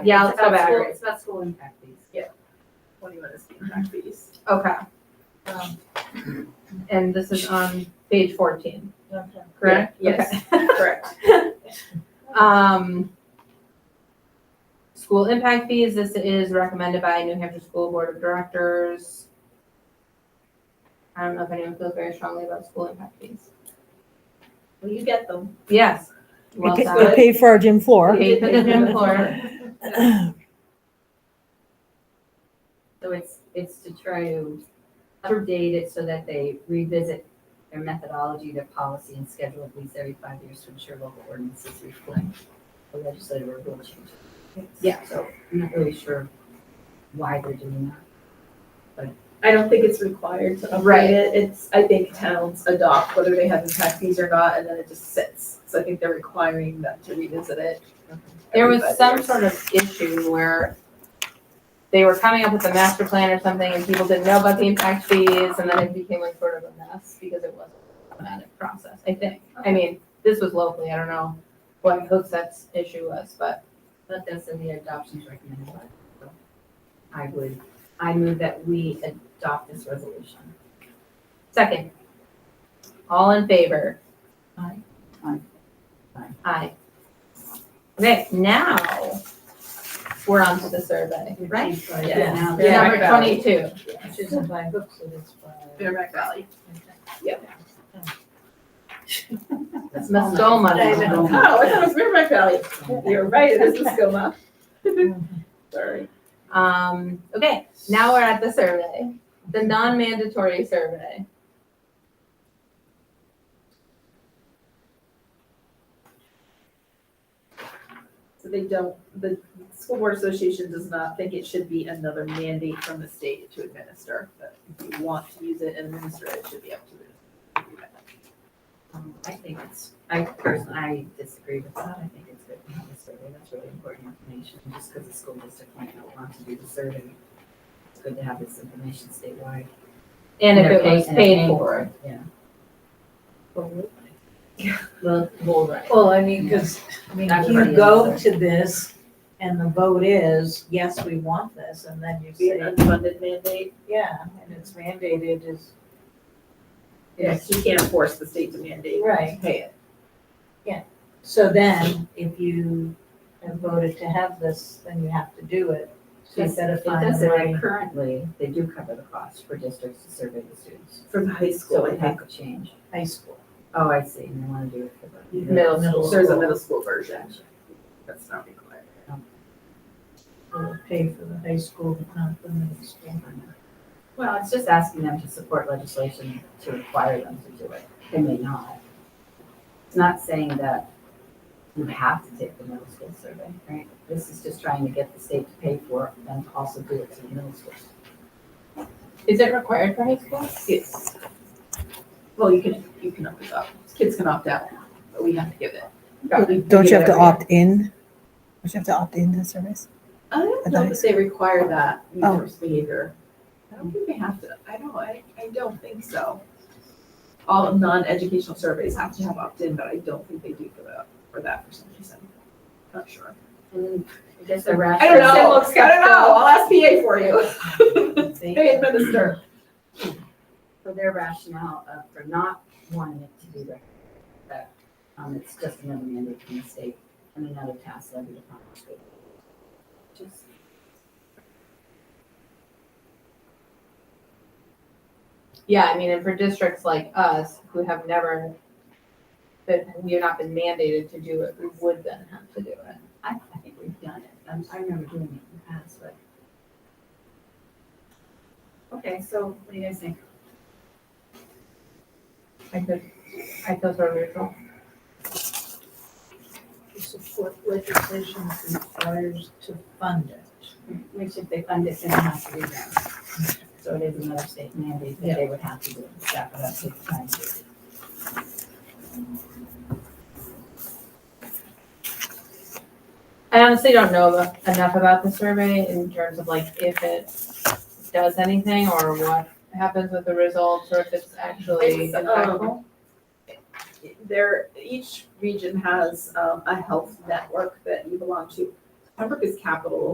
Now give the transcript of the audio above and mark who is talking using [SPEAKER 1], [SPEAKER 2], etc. [SPEAKER 1] Yeah, let's
[SPEAKER 2] It's
[SPEAKER 1] go
[SPEAKER 2] about
[SPEAKER 1] back.
[SPEAKER 2] school- It's about school impact fees.
[SPEAKER 1] Yeah.
[SPEAKER 2] What do you want us to impact fees?
[SPEAKER 1] Okay. Um, And this is on page fourteen, correct?
[SPEAKER 2] Yes,
[SPEAKER 1] Okay.
[SPEAKER 2] correct.
[SPEAKER 1] Um, school impact fees, this is recommended by New Hampshire School Board of Directors. I don't know if anyone feels very strongly about school impact fees.
[SPEAKER 2] Well, you get them.
[SPEAKER 1] Yes. Well
[SPEAKER 3] We pa-
[SPEAKER 1] said.
[SPEAKER 3] we paid for our gym floor.
[SPEAKER 1] Paid for the gym floor.
[SPEAKER 4] So it's, it's to try to update it so that they revisit their methodology, their policy and schedule at least every five years to ensure local ordinances reflect the legislative or rule changes.
[SPEAKER 1] Yeah.
[SPEAKER 4] So I'm not really sure why they're doing that.
[SPEAKER 2] I don't think it's required to
[SPEAKER 1] Right.
[SPEAKER 2] update it. It's, I think towns adopt whether they have impact fees or not, and then it just sits. So I think they're requiring them to revisit it.
[SPEAKER 1] There
[SPEAKER 2] every
[SPEAKER 1] was
[SPEAKER 2] five
[SPEAKER 1] some
[SPEAKER 2] years.
[SPEAKER 1] sort of issue where they were coming up with a master plan or something and people didn't know about the impact fees and then it became like sort of a mess because it wasn't a systematic process, I think. I mean, this was locally, I don't know what Hookseth's issue was, but
[SPEAKER 4] But that's in the adoptions recommended. by- so I would, I move that we adopt this resolution.
[SPEAKER 1] second. All in favor?
[SPEAKER 4] Aye.
[SPEAKER 1] Aye.
[SPEAKER 4] Aye.
[SPEAKER 1] Aye. Okay, now we're on to the survey, right?
[SPEAKER 2] Yes. Yeah.
[SPEAKER 4] Now that-
[SPEAKER 1] Number twenty-two.
[SPEAKER 4] She's not buying books, so that's why.
[SPEAKER 2] Merrimack Valley.
[SPEAKER 4] That's
[SPEAKER 1] Mastoma.
[SPEAKER 2] Oh,
[SPEAKER 1] Mastoma.
[SPEAKER 2] I thought it was Merrimack Valley. You're right, it is Muskoma. Sorry.
[SPEAKER 1] Um, okay, now we're at the survey, the non-mandatory survey.
[SPEAKER 2] So they don't, the School Board Association does not think it should be another mandate from the state to administer. But if you want to use it and administer it, it should be up to the.
[SPEAKER 4] Um, I think it's, I personally, I disagree with that. I think it's good to have a survey. That's really important information. Just because the school district might not want to do the survey. It's good to have this information statewide.
[SPEAKER 1] And if it was
[SPEAKER 4] they're
[SPEAKER 1] paid
[SPEAKER 4] and they're
[SPEAKER 1] for.
[SPEAKER 4] paying
[SPEAKER 5] Well,
[SPEAKER 4] Well, well, right.
[SPEAKER 5] I mean, because, I mean,
[SPEAKER 4] Not
[SPEAKER 5] you
[SPEAKER 4] everybody
[SPEAKER 5] go
[SPEAKER 4] is
[SPEAKER 5] to this and the vote is, yes, we want this, and then you
[SPEAKER 2] Be an
[SPEAKER 5] say,
[SPEAKER 2] unfunded mandate.
[SPEAKER 5] yeah, and it's mandated is,
[SPEAKER 2] Yes, you can't force the state to mandate.
[SPEAKER 5] Right.
[SPEAKER 2] Pay it.
[SPEAKER 5] so then if you have voted to have this, then you have to do it. So you
[SPEAKER 4] Yes,
[SPEAKER 5] gotta
[SPEAKER 4] It
[SPEAKER 5] find
[SPEAKER 4] does say
[SPEAKER 5] the money.
[SPEAKER 4] that currently, they do cover the cost for districts to survey the students.
[SPEAKER 2] For the high school,
[SPEAKER 4] So
[SPEAKER 2] I
[SPEAKER 4] it
[SPEAKER 2] think.
[SPEAKER 4] had to change.
[SPEAKER 5] high school.
[SPEAKER 4] Oh, I see. And they want to do it for the.
[SPEAKER 1] Middle
[SPEAKER 5] middle
[SPEAKER 2] There's a
[SPEAKER 5] school.
[SPEAKER 2] middle school version. That's not required.
[SPEAKER 5] We'll Pay for the high school, but not the middle school.
[SPEAKER 4] Well, it's just asking them to support legislation to require them to do it. They may not. It's not saying that you have to take the middle school survey, right? This is just trying to get the state to pay for it and also do it to the middle schools.
[SPEAKER 1] Is it required for high school?
[SPEAKER 2] Yes. Well, you can, you can opt out. Kids can opt out, but we have to give it.
[SPEAKER 3] Don't you have to opt in? Don't you have to opt into the service?
[SPEAKER 2] I don't
[SPEAKER 3] I
[SPEAKER 2] know
[SPEAKER 3] thought
[SPEAKER 2] that they require that
[SPEAKER 3] Oh.
[SPEAKER 2] resource behavior. I don't think they have to, I don't, I, I don't think so. All non-educational surveys have to have opt-in, but I don't think they do for that, for that for some reason. Not sure.
[SPEAKER 4] And I guess the
[SPEAKER 2] I
[SPEAKER 4] rationale.
[SPEAKER 2] don't know, I don't know, I'll ask PA for you.
[SPEAKER 5] They-
[SPEAKER 2] They administer.
[SPEAKER 4] For their rationale of, for not wanting it to be recognized, that, um, it's just another mandate from the state and another task levied upon the state. Just
[SPEAKER 1] Yeah, I mean, and for districts like us who have never, that we have not been mandated to do it, we would then have to do it.
[SPEAKER 4] I, I think we've done it. I'm, I remember doing it in the past, but. Okay, so what do you guys think?
[SPEAKER 1] I could, I feel sort of neutral.
[SPEAKER 5] To Support legislation that requires to fund it.
[SPEAKER 4] Which if they fund it, then it has to be done. So it is another state mandate that they would have to do, step it up to the time.
[SPEAKER 1] I honestly don't know abo- enough about the survey in terms of like if it does anything or what happens with the results or if it's actually
[SPEAKER 2] It's, um,
[SPEAKER 1] impactful.
[SPEAKER 2] there, each region has um, a health network that you belong to. Pembroke is capital